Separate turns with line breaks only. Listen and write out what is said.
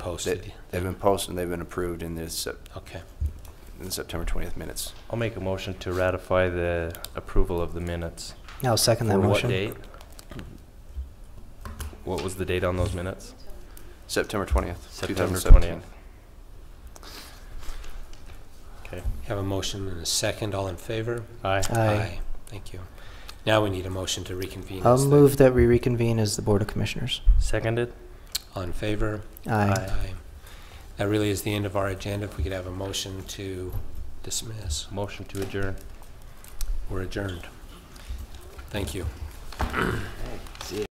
They-
posted.
They've been posted and they've been approved in this, Sep-
Okay.
in the September 20th minutes.
I'll make a motion to ratify the approval of the minutes.
I'll second that
For what
motion.
date? What was the date on those minutes?
September 20th,
September
2017.
20th. Okay.
Have a motion and a second. All in favor?
Aye.
Aye.
Thank you. Now we need a motion to reconvene.
I'll
as the-
move that we reconvene as the Board of Commissioners.
Seconded?
All in favor?
Aye.
That really is the end of our agenda. If we could have a motion to dismiss,
Motion to adjourn.
we're adjourned. Thank you.